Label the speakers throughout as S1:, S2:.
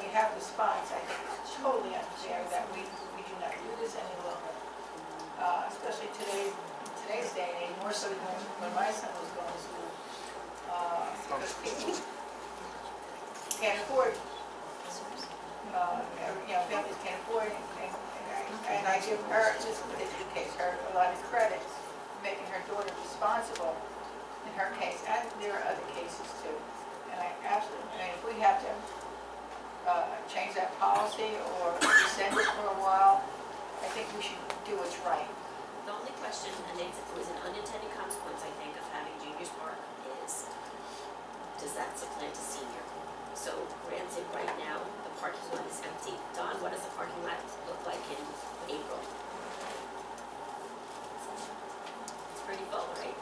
S1: response, I think it's totally unfair that we, we do not do this any longer. Uh, especially today, today's day and age, more so than when my son was going to school. Uh, because people Can't afford, uh, you know, families can't afford it. And and I- and I give her, just to educate her, a lot of credit, making her daughter responsible in her case, and there are other cases too. And I absolutely, and if we have to uh, change that policy or rescind it for a while, I think we should do what's right.
S2: The only question, and it's, it was an unintended consequence, I think, of having juniors park is, does that supplant a senior? So granted, right now, the parking lot is empty. Don, what does the parking lot look like in April? It's pretty full, right?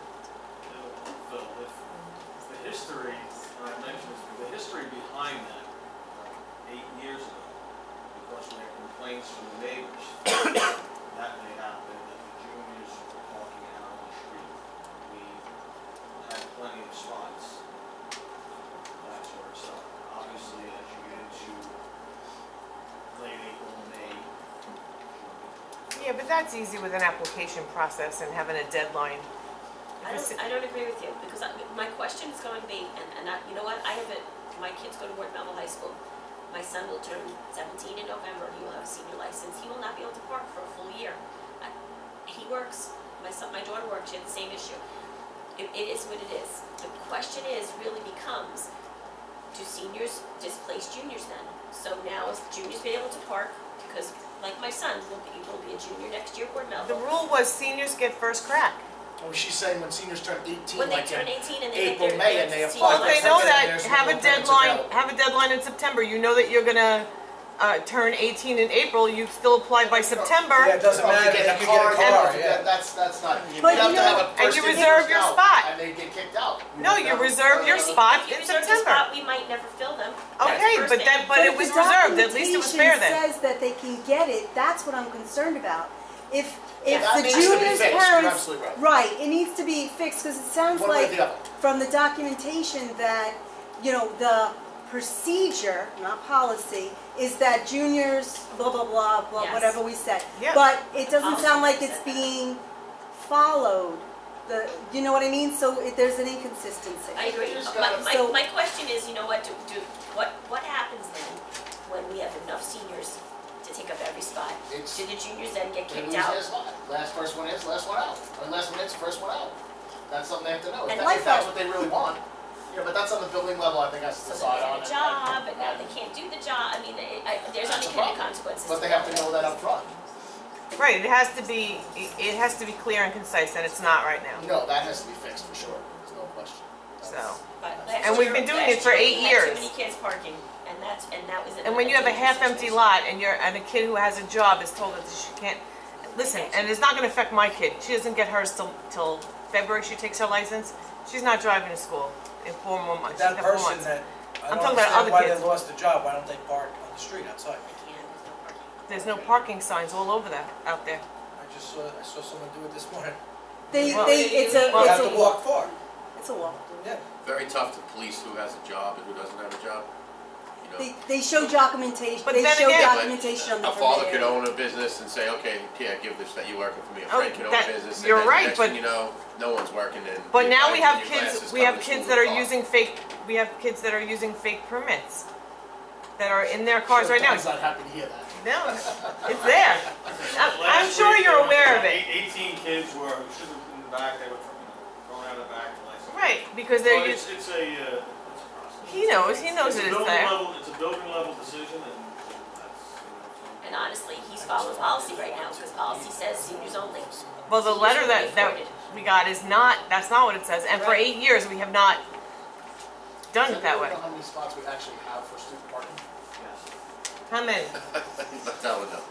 S3: Phil, if, the history, and I mentioned this, the history behind that, uh, eight years ago, because we had complaints from the neighbors, that they happened, that the juniors were walking out on the street. We had plenty of spots, that sort of stuff. Obviously, as you get into late April, May,
S4: Yeah, but that's easy with an application process and having a deadline.
S2: I don't, I don't agree with you, because I, my question is going to be, and, and I, you know what, I have a, my kids go to Ward Melville High School. My son will turn seventeen in November, he will have a senior license, he will not be able to park for a full year. I- He works, my son, my daughter works, she had the same issue. It, it is what it is. The question is, really becomes, do seniors displace juniors then? So now if juniors be able to park, because like my son will be, will be a junior next year at Ward
S4: The
S2: Melville.
S4: rule was seniors get first crack.
S5: Oh, she's saying when seniors turn 18,
S2: When they
S5: like
S2: turn
S5: in
S2: eighteen and they get
S5: April,
S2: their,
S5: May,
S2: their
S5: and they
S2: senior
S5: apply
S4: Well, if
S5: that's
S2: license.
S4: they know
S5: something
S4: that,
S5: there's
S4: have a
S5: no parents
S4: deadline,
S5: available.
S4: have a deadline in September. You know that you're gonna, uh, turn eighteen in April, you still apply by
S5: Yeah,
S4: September.
S5: it doesn't
S6: Oh, if you
S5: matter.
S6: get
S5: They
S6: a
S5: could
S6: car,
S5: get a car.
S6: yeah.
S5: yeah. that's that's not. You
S4: But
S5: have
S4: you
S5: to have a
S4: know- and
S5: first
S4: you
S5: in,
S4: reserve
S5: first
S4: your
S5: out,
S4: spot.
S5: And they get kicked out.
S4: No, you reserve your
S2: If you- if
S4: spot
S2: you
S4: in
S2: reserve the
S4: September.
S2: spot, We might never fill them. That's
S4: Okay,
S2: first
S4: but
S2: thing.
S4: that, but it
S7: if
S4: was
S7: the
S4: reserved, at least it was fair then.
S7: documentation says that they can get it, that's what I'm concerned about. If, if
S5: That
S7: the
S5: needs to be
S7: junior's
S5: fixed, you're
S7: parents.
S5: absolutely right.
S7: it needs to be fixed, because it sounds
S5: One way or
S7: like
S5: the other.
S7: from the documentation that, you know, the procedure, not policy, is that juniors, blah, blah, blah, blah,
S2: Yes.
S7: whatever we said.
S4: Yeah.
S7: But it doesn't
S2: Policy
S7: sound like it's
S2: said that.
S7: being followed, the, you know what I mean? So it- there's an inconsistency.
S2: I agree.
S5: Just
S2: My,
S5: gotta-
S2: my,
S7: So-
S2: my question is, you know what, do, do, what, what happens then when we have enough seniors to take up every spot?
S5: It's-
S2: Do the juniors then get
S5: They
S2: kicked
S5: lose
S2: out?
S5: their spot. Last first one is, last one out. Or last one in, first one out. That's something they have to know. If,
S2: And
S5: that,
S7: like
S5: if that's
S7: that-
S5: what they really want. Yeah, but that's on the building level. I think has to
S2: So
S5: decide
S2: they
S5: on.
S2: get a job, and now
S5: and-
S2: they can't do the job, I mean, it- I, there's
S5: That's a
S2: unintended
S5: problem.
S2: consequences.
S5: But they have to know that up front.
S4: Right, it has to be, it it has to be clear and concise, and it's not right now.
S5: No, that has to be fixed for sure. There's no question. That's-
S4: So.
S2: But last
S4: And we've
S2: year-
S4: been doing
S2: last
S4: it for
S2: year we
S4: eight
S2: had
S4: years.
S2: Too many kids parking, and that's, and that was.
S4: And when you have a
S2: another
S4: half-empty
S2: situation.
S4: lot and you're, and a kid who has a job is told that she can't, listen, and it's not gonna affect my kid, she doesn't get hers till, till February, she takes her license, she's not driving to school in four more months, she's
S6: That
S4: got four
S6: person
S4: months.
S6: that, I
S4: I'm
S6: don't
S4: talking about other
S6: understand why they
S4: kids.
S6: lost their job, why don't they park on the street outside?
S2: They can't, there's no parking.
S4: There's no parking signs all over that, out there.
S6: I just saw, I saw someone do it this morning.
S7: They,
S4: Well,
S7: they, it's a,
S6: You have
S7: it's
S6: to
S7: a
S6: walk
S7: walk,
S6: far,
S7: it's a walk.
S6: yeah.
S8: very tough to police who has a job and who doesn't have a job. You know,
S7: They, they show documentation,
S4: But
S7: they
S4: then
S7: show
S4: again-
S8: But
S7: documentation on the
S8: A father
S7: permit
S8: could
S7: area.
S8: own a business and say, okay, yeah, give this, that you working for me, a
S4: Oh,
S8: friend could own
S4: that-
S8: a business. and
S4: you're
S8: then the
S4: right,
S8: next
S4: but-
S8: thing you know, no one's working and.
S4: But
S8: your
S4: now
S8: guy
S4: we
S8: with
S4: have
S8: your
S4: kids,
S8: glasses
S4: we
S8: coming
S4: have
S8: to
S4: kids
S8: school
S4: that are
S8: with a car.
S4: using fake, we have kids that are using fake permits, that are in their cars
S5: Sure,
S4: right now.
S5: Don's not happy to hear that.
S4: No, it's there. I'm, I'm
S3: Last
S4: sure
S3: week,
S4: you're
S3: there
S4: aware
S3: were
S4: of it.
S3: Eighteen kids were, should have been in the back, they were thrown out of the back. like-
S4: Right, because
S3: But
S4: they're,
S3: it's,
S4: used-
S3: it's a, uh, it's a process.
S4: he knows, he knows
S3: It's a
S4: it is
S3: building
S4: there.
S3: level- It's a building level decision and that's, you
S2: And honestly, he's following policy right now, because policy says seniors only.
S4: Well, the letter that, that we got is not, that's not what it says, and for
S2: Right.
S4: eight years, we have not done it that way.
S5: I don't know how many spots we actually have for student parking.
S3: know, so, yes.
S4: How many?
S8: He's not telling them.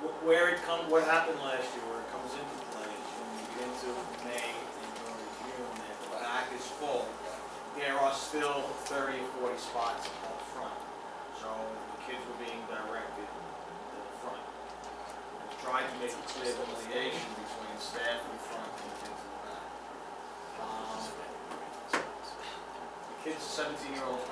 S3: Wh- Where it come, what happened last year, where it comes into play, is when you get into May and early June, and the back is full, there are still thirty or forty spots up front. So the kids were being directed to the front. We Tried to make a clear delineation between staff in front and kids in the back. Um, The kids, seventeen-year-olds